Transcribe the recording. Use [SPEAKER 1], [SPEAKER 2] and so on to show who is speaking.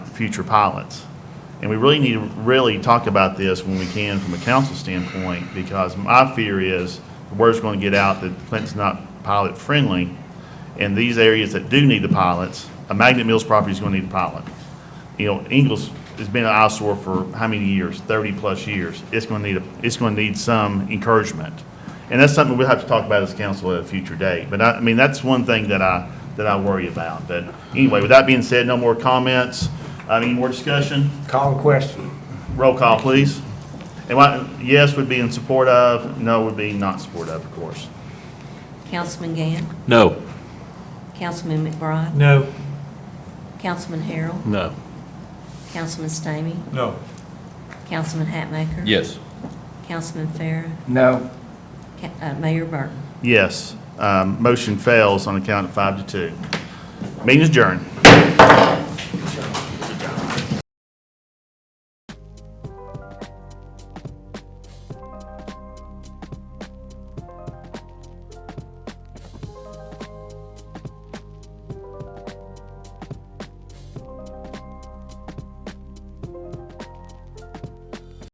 [SPEAKER 1] future pilots. And we really need to really talk about this when we can from a council standpoint, because my fear is the word's going to get out that Clinton's not pilot friendly. And these areas that do need the pilots, a Magnet Mills property is going to need a pilot. You know, Ingles has been an eyesore for how many years? Thirty-plus years. It's going to need, a it's going to need some encouragement. And that's something we'll have to talk about as council at a future date. But I, I mean, that's one thing that I, that I worry about. But anyway, with that being said, no more comments. I mean, more discussion?
[SPEAKER 2] Call the question.
[SPEAKER 1] Roll call, please. And what, yes would be in support of, no would be not support of, of course.
[SPEAKER 3] Councilman Gann,
[SPEAKER 4] No.
[SPEAKER 3] Councilman McBride,
[SPEAKER 2] No.
[SPEAKER 3] Councilman Harrell,
[SPEAKER 4] No.
[SPEAKER 3] Councilman Stamey,
[SPEAKER 2] No.
[SPEAKER 3] Councilman Hatmaker.
[SPEAKER 4] Yes.
[SPEAKER 3] Councilman Farah,
[SPEAKER 2] No.
[SPEAKER 3] Ca- uh, Mayor Burton.
[SPEAKER 1] Yes, um, motion fails on account of five to two. Meeting adjourned.